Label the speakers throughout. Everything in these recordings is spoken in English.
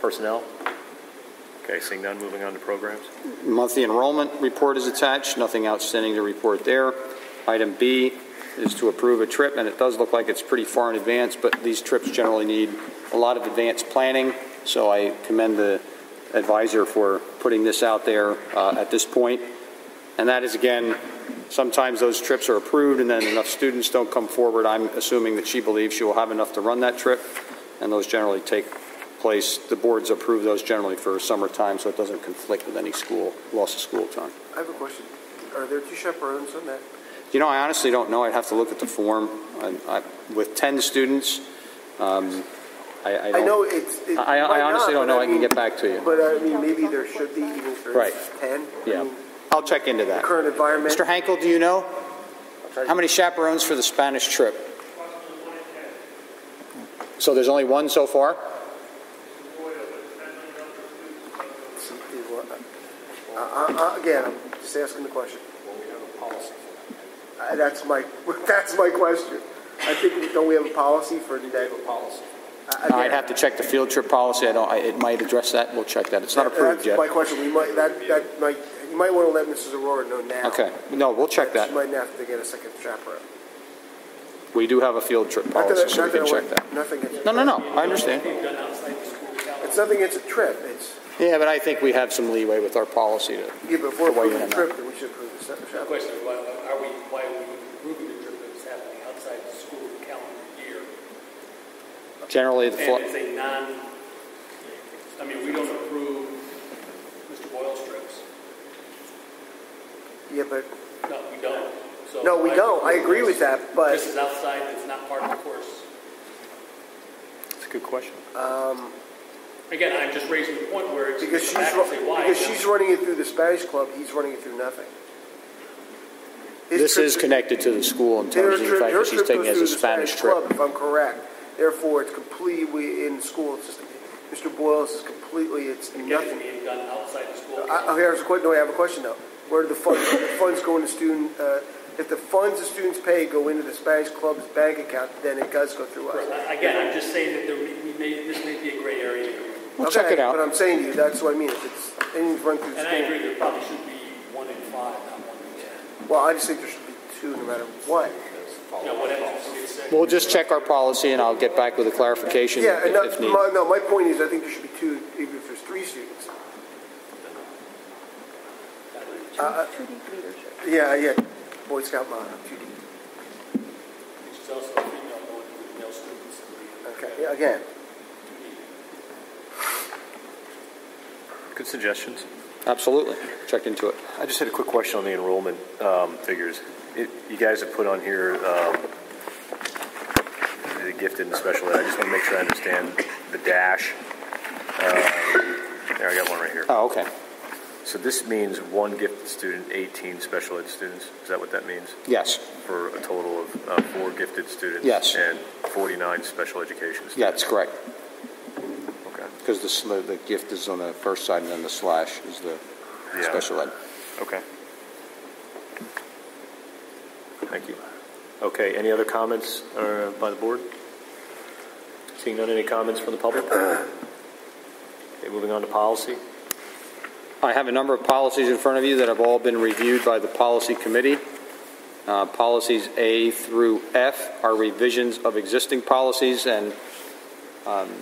Speaker 1: Personnel? Okay, seeing none, moving on to programs.
Speaker 2: Monthly enrollment report is attached, nothing outstanding to report there. Item B is to approve a trip, and it does look like it's pretty far in advance, but these trips generally need a lot of advanced planning, so I commend the advisor for putting this out there uh, at this point. And that is, again, sometimes those trips are approved, and then enough students don't come forward. I'm assuming that she believes she will have enough to run that trip, and those generally take place, the boards approve those generally for summertime, so it doesn't conflict with any school, loss of school time.
Speaker 3: I have a question. Are there two chaperones on that?
Speaker 2: You know, I honestly don't know, I'd have to look at the form. I- I- With 10 students, um, I I
Speaker 3: I
Speaker 2: don't,
Speaker 3: know it's. it
Speaker 2: I
Speaker 3: might
Speaker 2: I honestly don't
Speaker 3: not,
Speaker 2: know,
Speaker 3: but
Speaker 2: I can
Speaker 3: mean-
Speaker 2: get back to you.
Speaker 3: But I mean, maybe there should be even if
Speaker 2: Right.
Speaker 3: there's ten. I
Speaker 2: Yeah.
Speaker 3: mean,
Speaker 2: I'll check into
Speaker 3: the
Speaker 2: that.
Speaker 3: Current environment.
Speaker 2: Mr. Hankel, do you know?
Speaker 3: try to-
Speaker 2: How many chaperones for the Spanish trip? So there's only one so far?
Speaker 3: Uh, uh, uh, Again, I'm just asking the question. Uh, That's my, that's my question. I think, don't we have a policy for the day? Uh, Policy.
Speaker 2: I'd have to check the field trip policy, I don't, I- it might address that, we'll check that, it's not approved yet.
Speaker 3: That's my question. We might, that, that might, you might want to let Mrs. Aurora know now.
Speaker 2: Okay, no, we'll check that.
Speaker 3: She might have to get a second chaperone.
Speaker 2: We do have a field trip
Speaker 3: Not that-
Speaker 2: policy, so we
Speaker 3: not
Speaker 2: can
Speaker 3: I
Speaker 2: check
Speaker 3: want-
Speaker 2: that.
Speaker 3: Nothing against.
Speaker 2: No, no, no, I understand.
Speaker 3: It's nothing against a trip. It's,
Speaker 2: Yeah, but I think we have some leeway with our policy to,
Speaker 3: yeah, before
Speaker 2: Why you
Speaker 3: approving
Speaker 2: not?
Speaker 3: the trip, then we should approve the se-
Speaker 4: The
Speaker 3: chaperone.
Speaker 4: question is, why are we, why are we approving the trip that's happening outside the school calendar year?
Speaker 2: generally, the,
Speaker 4: And it's
Speaker 2: fl-
Speaker 4: a non, I mean, we don't approve Mr. Boyle's trips.
Speaker 3: Yeah, but,
Speaker 4: No, we don't. So
Speaker 3: no, we
Speaker 4: why-
Speaker 3: don't. I agree with that,
Speaker 4: This
Speaker 3: but,
Speaker 4: is outside, it's not part of the course.
Speaker 1: It's a good question.
Speaker 3: um,
Speaker 4: Again, I'm just raising the point where it's.
Speaker 3: because she's,
Speaker 4: I
Speaker 3: ru-
Speaker 4: can say why.
Speaker 3: because she's running it through the Spanish club, he's running it through nothing. His
Speaker 2: this
Speaker 3: trip
Speaker 2: is
Speaker 3: to-
Speaker 2: connected to the school in
Speaker 3: their
Speaker 2: terms of the
Speaker 3: trip-
Speaker 2: fact
Speaker 3: her
Speaker 2: that she's
Speaker 3: trip
Speaker 2: taking it
Speaker 3: goes
Speaker 2: as a
Speaker 3: through the
Speaker 2: Spanish trip.
Speaker 3: Club, if I'm correct. Therefore, it's completely in school. It's just, Mr. Boyle's is completely, it's
Speaker 4: Again,
Speaker 3: nothing.
Speaker 4: it's being done outside the school.
Speaker 3: I, oh, here's a question. No, I have a question though. Where do the funds, the funds go into student? Uh, if the funds the students pay go into the Spanish club's bank account, then it does go through us.
Speaker 4: I- Again, I'm just saying that there, may- we may, this may be a gray area.
Speaker 2: We'll check
Speaker 3: Okay,
Speaker 2: it
Speaker 3: But uh,
Speaker 2: out.
Speaker 3: I'm saying to you, that's what I mean. If it's anything's run through the
Speaker 4: And I
Speaker 3: school,
Speaker 4: agree, there probably should be one in five, not one in ten.
Speaker 3: well, I just think there should be two, no matter what.
Speaker 4: You know, whatever it's said.
Speaker 2: We'll just check our policy and I'll get back with a clarification
Speaker 3: Yeah, and uh,
Speaker 2: if if
Speaker 3: that,
Speaker 2: needed.
Speaker 3: my, no, my point is, I think there should be two, even if there's three students. Uh,
Speaker 5: Student leadership.
Speaker 3: Yeah, yeah. Boy Scout motto, two D.
Speaker 4: Which is also a female going to male students.
Speaker 3: Okay, yeah, again.
Speaker 1: Good suggestions.
Speaker 2: Absolutely, check into it.
Speaker 1: I just had a quick question on the enrollment um, figures. It- You guys have put on here um, the gifted and special ed. I just want to make sure I understand the dash. Um, There, I got one right here.
Speaker 2: Oh, okay,
Speaker 1: So this means one gifted student, 18 special ed students? Is that what that means?
Speaker 2: yes,
Speaker 1: For a total of uh, four gifted students?
Speaker 2: Yes.
Speaker 1: And 49 special education students?
Speaker 2: yeah, that's correct,
Speaker 1: Okay.
Speaker 2: because the, sl- the gift is on the first side and then the slash is the
Speaker 1: Yeah.
Speaker 2: special ed.
Speaker 1: Okay. Thank you. Okay, any other comments uh, by the board? Seeing none, any comments from the public? Okay, moving on to policy.
Speaker 2: I have a number of policies in front of you that have all been reviewed by the policy committee. Uh, Policies A through F are revisions of existing policies, and um,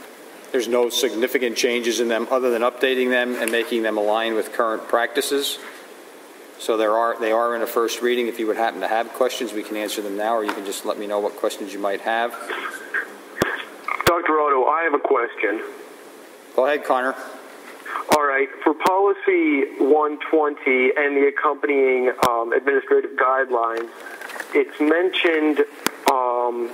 Speaker 2: there's no significant changes in them other than updating them and making them align with current practices. So there are, they are in a first reading. If you would happen to have questions, we can answer them now, or you can just let me know what questions you might have.
Speaker 6: Dr. Otto, I have a question.
Speaker 2: Go ahead, Connor.
Speaker 6: All right, for policy 120 and the accompanying um, administrative guidelines, it's mentioned. Um,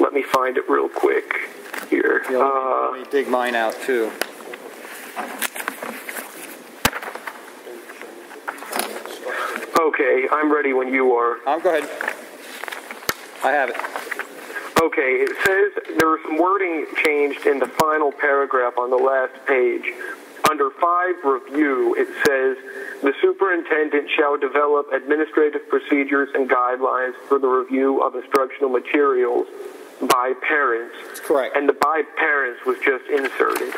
Speaker 6: let me find it real quick here.
Speaker 2: Yeah, let me-
Speaker 6: Uh,
Speaker 2: let me dig mine out, too.
Speaker 6: Uh, okay, I'm ready when you are.
Speaker 2: Um, Go ahead. I have it.
Speaker 6: Okay, it says there was some wording changed in the final paragraph on the last page. Under 5 review, it says the superintendent shall develop administrative procedures and guidelines for the review of instructional materials by parents.
Speaker 2: correct.
Speaker 6: And the by parents was just inserted.